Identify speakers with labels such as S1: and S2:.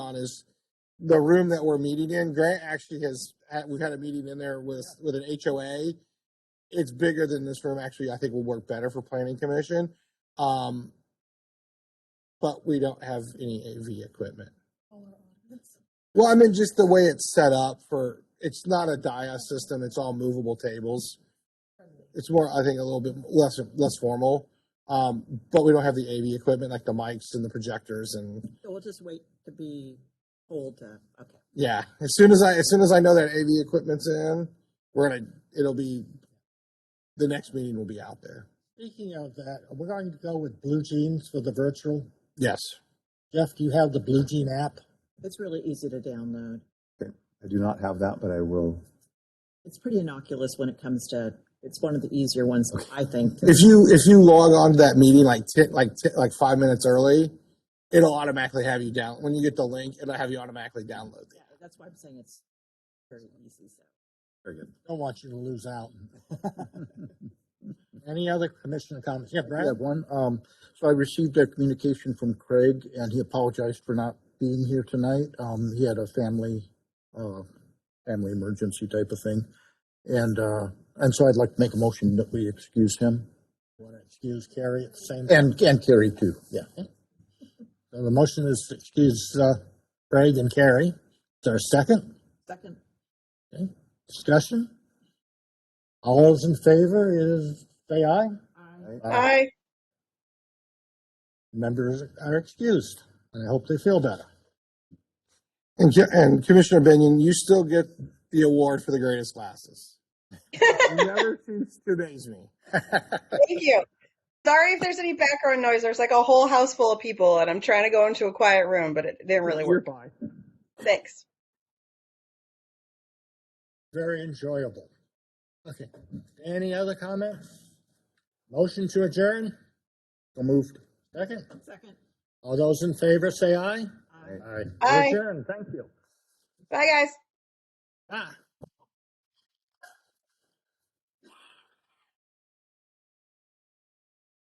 S1: is the room that we're meeting in. Grant actually has had, we've had a meeting in there with with an HOA. It's bigger than this room. Actually, I think will work better for planning commission. Um, but we don't have any AV equipment. Well, I mean, just the way it's set up for it's not a dia system. It's all movable tables. It's more, I think, a little bit less less formal. Um, but we don't have the AV equipment like the mics and the projectors and
S2: So we'll just wait to be told to, okay.
S1: yeah. As soon as I as soon as I know that AV equipment's in, we're gonna it'll be the next meeting will be out there.
S3: Speaking of that, we're going to go with Blue Jeans for the virtual.
S1: Yes.
S3: Jeff, do you have the Blue Jean app?
S2: It's really easy to download.
S4: I do not have that, but I will.
S2: It's pretty innocuous when it comes to, it's one of the easier ones, I think. to-
S1: If you if you log on to that meeting like ten, like ten, like five minutes early, it'll automatically have you down when you get the link. It'll have you automatically download it.
S2: Yeah, That's why I'm saying it's very easy, so.
S4: Very good.
S3: Don't want you to lose out. Any other commissioner comments? Yeah, Brad?
S5: I have one. Um, so I received a communication from Craig and he apologized for not being here tonight. Um, he had a family, uh, family emergency type of thing. And, uh, and so I'd like to make a motion that we excuse him
S3: Want to excuse Carrie at the same time?
S5: and, and Carrie too. Yeah.
S3: So The motion is to excuse uh, Craig and Carrie. Is there a second?
S2: Second,
S3: Discussion? All those in favor is, say aye.
S2: I,
S6: Aye.
S3: Members are excused, and I hope they feel better.
S1: And, Co- and Commissioner Binion, you still get the award for the greatest glasses. You never cease to amaze me.
S6: Thank you. Sorry if there's any background noise. There's like a whole house full of people, and I'm trying to go into a quiet room, but it didn't really work. Thanks.
S3: Very enjoyable. Okay. Any other comments? Motion to adjourn?
S5: So moved.
S3: Second?
S2: second.
S3: All those in favor say
S2: I-
S3: aye.
S5: Aye.
S3: Aye.
S6: Aye.
S3: Adjourn, thank you.
S6: Bye, guys.
S3: Ah.